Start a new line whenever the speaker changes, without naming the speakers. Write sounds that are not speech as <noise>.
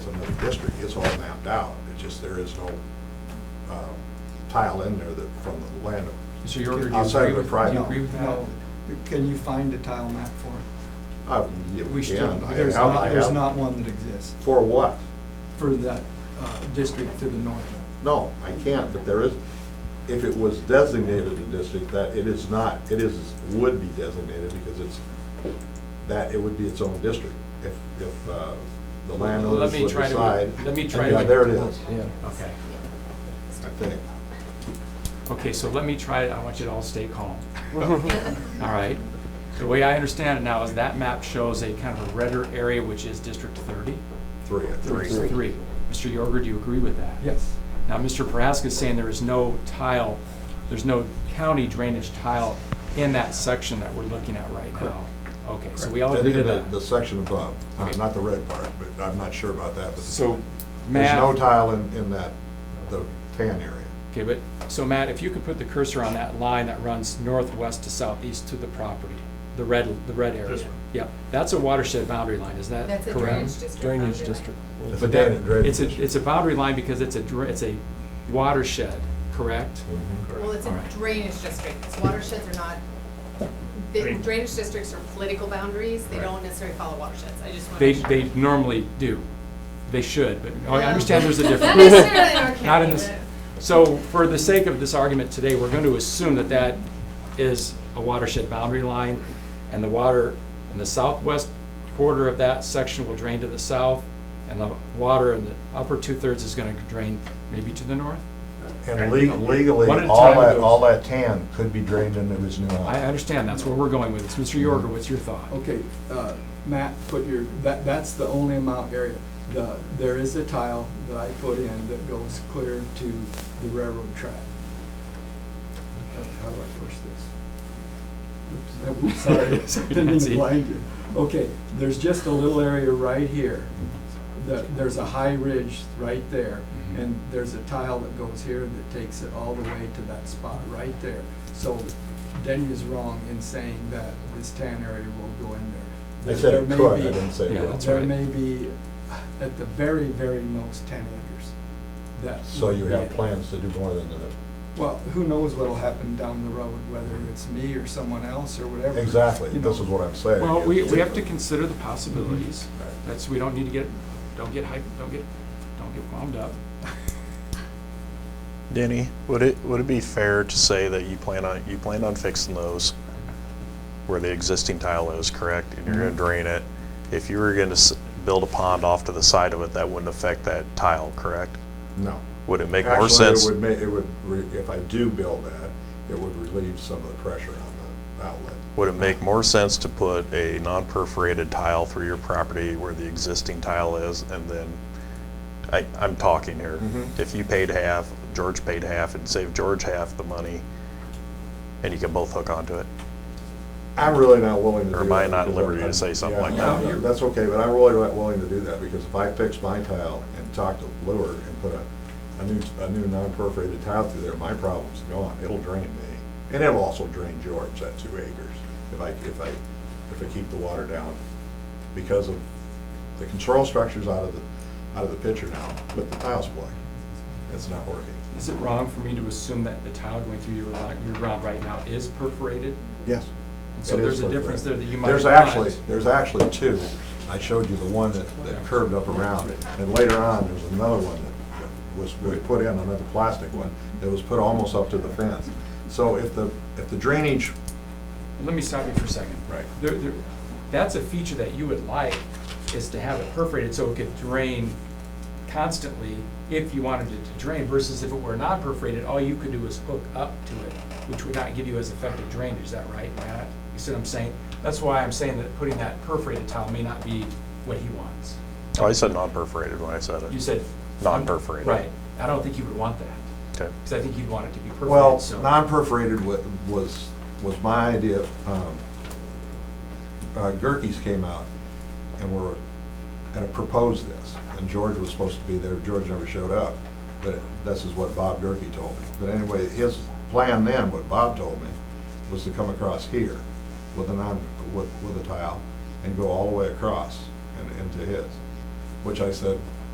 district, it's all mapped out, it's just there is no um, tile in there that, from the landowner.
Mr. Yorker, do you
Outside
agree
of the
with, do
private.
you agree with that?
No, can you find a tile map for it?
I- Uh, yeah,
We still,
can. I
there's
have-
not,
I
there's
have.
not one that exists
For what?
for that uh, district to the north.
No, I can't, but there is, if it was designated a district, that it is not, it is, would be designated because it's, that, it would be its own district if, if uh, the landowners
Let me
would
try to-
decide.
let me try
Yeah,
to-
there it is,
Yeah.
Okay,
I think.
okay, so let me try it, I want you to all stay calm. All right, the way I understand it now is that map shows a kind of a redder area, which is District thirty.
Three, I think.
District Three. Mr. Yorger, do you agree with that?
Yes.
Now, Mr. Prohaska is saying there is no tile, there's no county drainage tile in that section that we're looking at right now. Okay, so we all
And
agree to
in the- The
that.
section above, uh,
Okay.
not the red part, but I'm not sure about that, but
So,
there's no
Matt,
tile in, in that, the tan area.
okay, but, so Matt, if you could put the cursor on that line that runs northwest to southeast to the property, the red, the red area.
This one.
Yep, that's a watershed boundary line, is that correct?
That's a drainage district.
Drainage
boundary line.
district.
It's a
But that,
tan drainage
it's a,
district.
it's a boundary line because it's a, dra- it's a watershed, correct?
Well, it's
All
a
right.
drainage district, It's watersheds are not, the
Drain-
drainage districts are political boundaries, they
Right.
don't necessarily follow watersheds, I just want
They,
to.
they normally do. They should, but I understand there's a
Not
difference.
necessarily in
<laughs>
our
Not in
county,
this-
but-
So for the sake of this argument today, we're going to assume that that is a watershed boundary line, and the water in the southwest quarter of that section will drain to the south, and the water in the upper two-thirds is going to drain maybe to the north?
And le- legally,
One at a
all
time
that,
goes.
all that tan could be drained into his new
I
line.
understand, that's where we're going with this. Mr. Yorger, what's your thought?
Okay, uh, Matt, put your, that, that's the only amount area. The, there is a tile that I put in that goes clear to the railroad track. How- How do I push this? Oops, <laughs> I'm
Sorry,
sorry, didn't mean
<laughs> Nancy.
to blind you. Okay, there's just a little area right here. That, there's a high ridge right there,
Mhm.
Mm-hmm.
and there's a tile that goes here that takes it all the way to that spot right there. So Denny is wrong in saying that this tan area will go in there.
I said
There
it
may
could, I
be-
didn't say
Yeah,
will.
that's
There
right.
may be, at the very, very most, ten acres. That
So
would
you
be
have
it.
plans to do more than that.
Well, who knows what'll happen down the road, whether it's me or someone else or whatever.
Exactly,
you know.
this is what I'm saying.
Well, we,
is-
we have to consider the possibilities.
Right.
That's, we don't need to get, don't get hyped, don't get, don't get wound up.
Denny, would it, would it be fair to say that you plan on, you plan on fixing those where the existing tile is, correct? And you're gonna drain it. If you were gonna s- build a pond off to the side of it, that wouldn't affect that tile, correct?
No.
Would it make more
Actually,
sense?
it would make, it would, re- if I do build that, it would relieve some of the pressure on the outlet.
Would it make more sense to put a non-perforated tile through your property where the existing tile is and then, I, I'm talking here.
Mhm.
If you paid half, George paid half, and save George half the money, and you can both hook onto it?
I'm really not willing to do that.
Or am I not
because
liberty to say something
yeah,
like
no,
that?
no, That's okay, but I'm really not willing to do that, because if I fix my tile and talk to Lure and put a, a new, a new non-perforated tile through there, my problem's gone, it'll drain me. And it'll also drain George, that two acres, if I, if I, if I keep the water down, because of, the control structure's out of the, out of the picture now, but the tile's blank, it's not working.
Is it wrong for me to assume that the tile going through your lot, your ground right now is perforated?
Yes.
And so
It is
there's a
perforated.
difference there that you might
There's
not-
actually, there's actually two. I showed you the one that, that curved up around it, and later on, there's another one that that was, we put in, another plastic one, that was put almost up to the fence. So if the, if the drainage,
Let me stop you for a second.
Right.
There, there, that's a feature that you would like, is to have it perforated so it could drain constantly if you wanted it to drain, versus if it were not perforated, all you could do is hook up to it, which would not give you as effective drainage, is that right, Matt? You see what I'm saying? That's why I'm saying that putting that perforated tile may not be what he wants.
Oh, I said non-perforated when I said it.
You said.
Non-perforated.
Right, I don't think you would want that.
Okay.
Because I think you'd want it to be perfect.
well,
so-
non-perforated wa- was, was my idea. Um, uh, Gerke's came out and were, and proposed this, and George was supposed to be there, George never showed up, but this is what Bob Gerke told me. But anyway, his plan then, what Bob told me, was to come across here with a non, with, with a tile and go all the way across and into his, which I said,